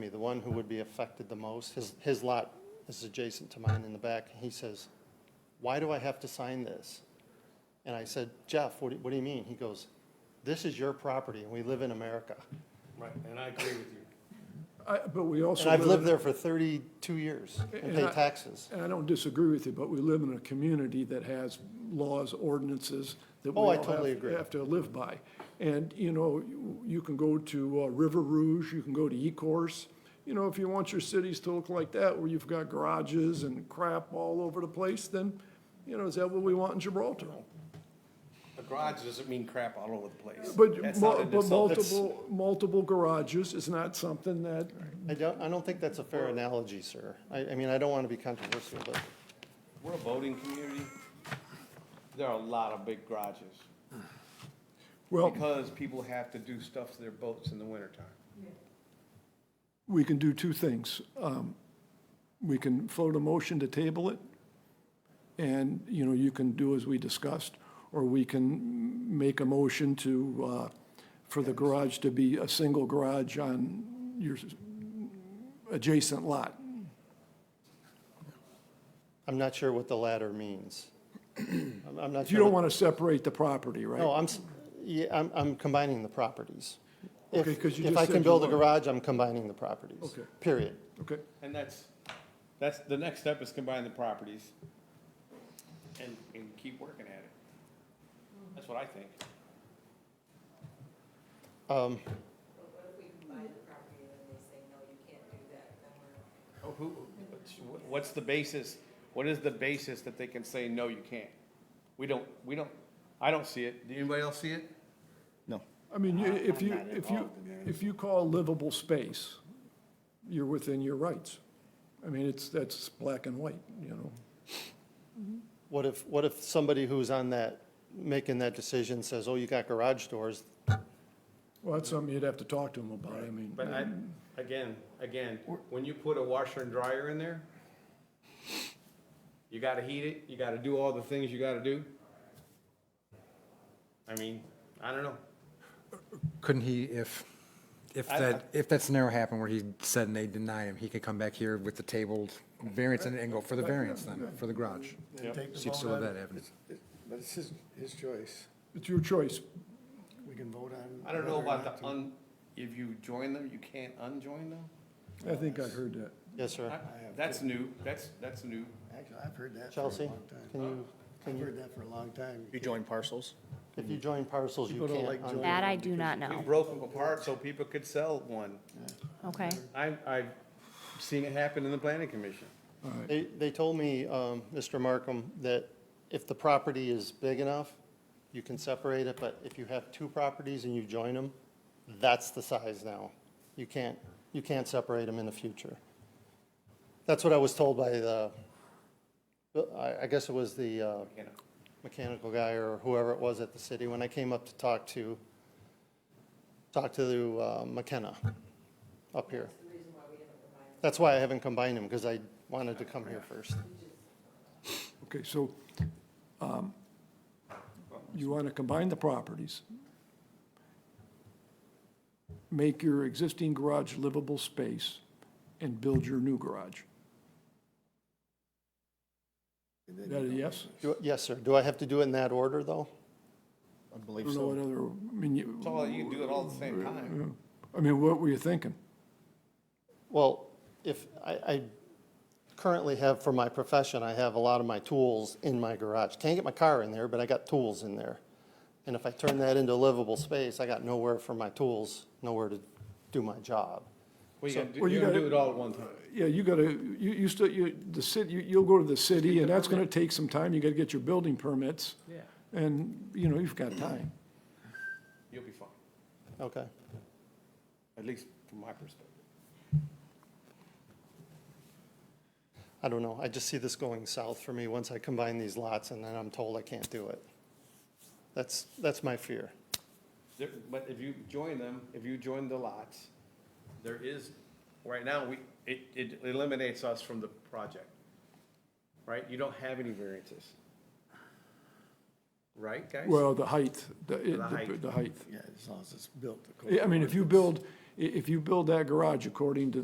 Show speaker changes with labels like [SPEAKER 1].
[SPEAKER 1] me, the one who would be affected the most, his, his lot is adjacent to mine in the back. He says, why do I have to sign this? And I said, Jeff, what do, what do you mean? He goes, this is your property and we live in America.
[SPEAKER 2] Right, and I agree with you.
[SPEAKER 3] I, but we also.
[SPEAKER 1] And I've
[SPEAKER 3] live
[SPEAKER 1] lived
[SPEAKER 3] in-
[SPEAKER 1] there for thirty-two years and
[SPEAKER 3] And
[SPEAKER 1] pay
[SPEAKER 3] I-
[SPEAKER 1] taxes.
[SPEAKER 3] And I don't disagree with you, but we live in a community that has laws, ordinances that we
[SPEAKER 1] Oh, I
[SPEAKER 3] all have-
[SPEAKER 1] totally agree.
[SPEAKER 3] Have to live by. And, you know, you- you can go to uh, River Rouge, you can go to Ecorse. You know, if you want your cities to look like that, where you've got garages and crap all over the place, then, you know, is that what we want in Gibraltar?
[SPEAKER 2] A garage doesn't mean crap all over the place.
[SPEAKER 3] But,
[SPEAKER 2] That's not
[SPEAKER 3] mul-
[SPEAKER 2] an
[SPEAKER 3] but
[SPEAKER 2] insult.
[SPEAKER 3] multiple, multiple garages is not something that,
[SPEAKER 1] I don't, I don't think that's a fair analogy, sir. I, I mean, I don't want to be controversial, but
[SPEAKER 2] We're a boating community. There are a lot of big garages
[SPEAKER 3] well,
[SPEAKER 2] because people have to do stuff to their boats in the wintertime.
[SPEAKER 3] we can do two things. Um, We can float a motion to table it, and, you know, you can do as we discussed, or we can make a motion to, uh, for the garage to be a single garage on your s- adjacent lot.
[SPEAKER 1] I'm not sure what the latter means. I'm, I'm not
[SPEAKER 3] You
[SPEAKER 1] sure.
[SPEAKER 3] don't
[SPEAKER 1] what-
[SPEAKER 3] want to separate the property, right?
[SPEAKER 1] No, I'm, s- yeah, I'm, I'm combining the properties. If-
[SPEAKER 3] Okay, 'cause you
[SPEAKER 1] If
[SPEAKER 3] just
[SPEAKER 1] I
[SPEAKER 3] said
[SPEAKER 1] can
[SPEAKER 3] you
[SPEAKER 1] build a
[SPEAKER 3] weren't.
[SPEAKER 1] garage, I'm combining the properties.
[SPEAKER 3] Okay.
[SPEAKER 1] Period.
[SPEAKER 3] Okay,
[SPEAKER 2] And that's, that's, the next step is combine the properties and, and keep working at it. That's what I think.
[SPEAKER 1] Um,
[SPEAKER 4] But what if we combine the property and then they say, no, you can't do that, then we're.
[SPEAKER 2] Oh, who, what's- what's the basis, what is the basis that they can say, no, you can't? We don't, we don't, I don't see it. Do anybody else see it?
[SPEAKER 5] No.
[SPEAKER 3] I mean, you- if you, if you, if you call livable space, you're within your rights. I mean, it's, that's black and white, you know?
[SPEAKER 1] What if, what if somebody who's on that, making that decision says, oh, you got garage doors?
[SPEAKER 3] Well, that's something you'd have to talk to them about, I mean.
[SPEAKER 2] But I, again, again, when you put a washer and dryer in there, you gotta heat it, you gotta do all the things you gotta do. I mean, I don't know.
[SPEAKER 5] Couldn't he, if, if
[SPEAKER 2] I-
[SPEAKER 5] that, if that scenario happened where he said and they denied him, he could come back here with the tabled variance and and go for the variance then, for the garage?
[SPEAKER 2] Yep.
[SPEAKER 6] and take the
[SPEAKER 5] So you
[SPEAKER 6] vote
[SPEAKER 5] still have
[SPEAKER 6] on
[SPEAKER 5] that
[SPEAKER 6] it.
[SPEAKER 5] avenue.
[SPEAKER 6] But it's his, his choice.
[SPEAKER 3] It's your choice.
[SPEAKER 6] We can vote on.
[SPEAKER 2] I don't know
[SPEAKER 6] whether or
[SPEAKER 2] about
[SPEAKER 6] not
[SPEAKER 2] the
[SPEAKER 6] to.
[SPEAKER 2] un, if you join them, you can't unjoin them?
[SPEAKER 3] I think I heard that.
[SPEAKER 1] Yes, sir.
[SPEAKER 2] I- That's new, that's, that's new.
[SPEAKER 6] Actually, I've heard that for a
[SPEAKER 1] Chelsea,
[SPEAKER 6] long time.
[SPEAKER 1] can you,
[SPEAKER 6] I've heard that for a long time.
[SPEAKER 5] You join parcels?
[SPEAKER 1] if you join parcels, you
[SPEAKER 6] People don't
[SPEAKER 1] can't.
[SPEAKER 6] like
[SPEAKER 1] un-
[SPEAKER 6] joining.
[SPEAKER 7] That I do not
[SPEAKER 2] We
[SPEAKER 7] know.
[SPEAKER 2] broke them apart so people could sell one.
[SPEAKER 7] Okay.
[SPEAKER 2] I, I've seen it happen in the planning commission.
[SPEAKER 3] All right,
[SPEAKER 1] They, they told me, um, Mr. Markham, that if the property is big enough, you can separate it, but if you have two properties and you join them, that's the size now. You can't, you can't separate them in the future. That's what I was told by the, I, I guess it was the, uh,
[SPEAKER 2] You know,
[SPEAKER 1] mechanical guy or whoever it was at the city, when I came up to talk to, talk to uh, McKenna up here. That's why I haven't combined them, because I wanted to come here first.
[SPEAKER 3] okay, so um, you want to combine the properties, make your existing garage livable space, and build your new garage.
[SPEAKER 6] And
[SPEAKER 3] Is
[SPEAKER 6] then
[SPEAKER 3] that a
[SPEAKER 6] you don't-
[SPEAKER 3] yes?
[SPEAKER 1] Do- Yes, sir. Do I have to do it in that order, though?
[SPEAKER 5] I
[SPEAKER 3] I
[SPEAKER 5] believe
[SPEAKER 3] don't know what other, I mean,
[SPEAKER 2] It's
[SPEAKER 3] you,
[SPEAKER 2] all, you can do it all at the same time.
[SPEAKER 3] I mean, what were you thinking?
[SPEAKER 1] Well, if, I, I currently have, for my profession, I have a lot of my tools in my garage. Can't get my car in there, but I got tools in there. And if I turn that into livable space, I got nowhere for my tools, nowhere to do my job.
[SPEAKER 2] Well, you gotta do,
[SPEAKER 3] Well, you
[SPEAKER 2] you gotta do
[SPEAKER 3] gotta-
[SPEAKER 2] it all at one time.
[SPEAKER 3] Yeah, you gotta, you, you still, you, the city, you- you'll go to the city, and that's gonna take some time, you gotta get your building permits.
[SPEAKER 2] Yeah.
[SPEAKER 3] And, you know, you've got time.
[SPEAKER 2] You'll be fine,
[SPEAKER 1] Okay.
[SPEAKER 2] at least from my perspective.
[SPEAKER 1] I don't know, I just see this going south for me once I combine these lots and then I'm told I can't do it. That's, that's my fear.
[SPEAKER 2] There, but if you join them, if you join the lots, there is, right now, we, it, it eliminates us from the project. Right? You don't have any variances. Right, guys?
[SPEAKER 3] Well, the height, the, it-
[SPEAKER 2] The height.
[SPEAKER 3] the height.
[SPEAKER 6] Yeah, as long as it's built.
[SPEAKER 3] Yeah, I mean,
[SPEAKER 6] according
[SPEAKER 3] if you build, i- if you build that garage according to